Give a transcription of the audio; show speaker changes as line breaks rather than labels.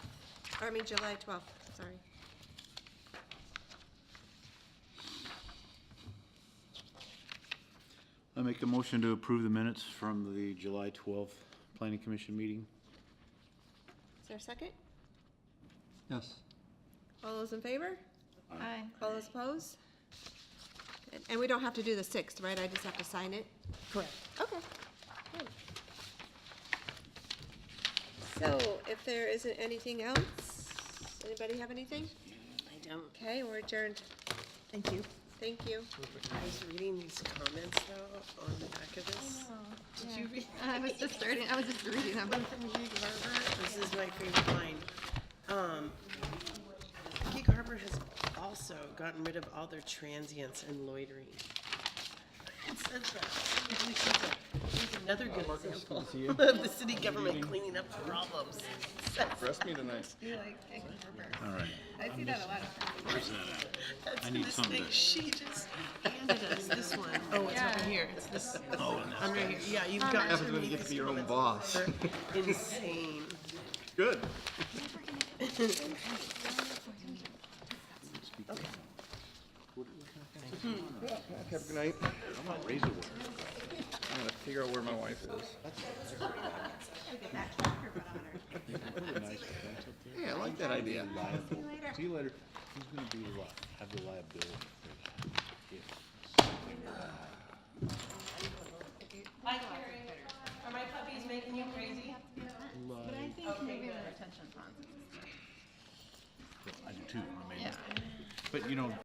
I mean, July 12th, sorry.
I make a motion to approve the minutes from the July 12th Planning Commission meeting.
Is there a second?
Yes.
All those in favor?
Aye.
All those opposed? Good. And we don't have to do the 6th, right? I just have to sign it?
Correct.
Okay. Good. So if there isn't anything else, anybody have anything?
I don't,
Okay, we're adjourned.
Thank you.
Thank you.
I was reading these comments though on the back of this. Did you read?
I was just starting, I was just reading them.
One from Gig Harbor, this is my favorite line. Um, Gig Harbor has also gotten rid of all their transients and loitering. It says that. It really says that. Here's Another good example of the city government cleaning up problems.
Rest me tonight.
All right.
I see that a lot.
That's
need
this
something
thing.
to-
She just handed us this one. Oh, it's
Yeah.
over here. It's Oh, this. I'm right here. Yeah, you've got.
Happens when you get to be your own boss.
Insane.
Good. Have a good night.
I'm on razor wire.
I'm gonna figure out where my wife is. Yeah, I like that idea.
See you later. See you later. Who's gonna be li- have the liability for that? If something were to happen.
Are my puppies making you crazy?
But I think maybe the retention funds.
Well, I do too, I mean,
Yeah.
but you know,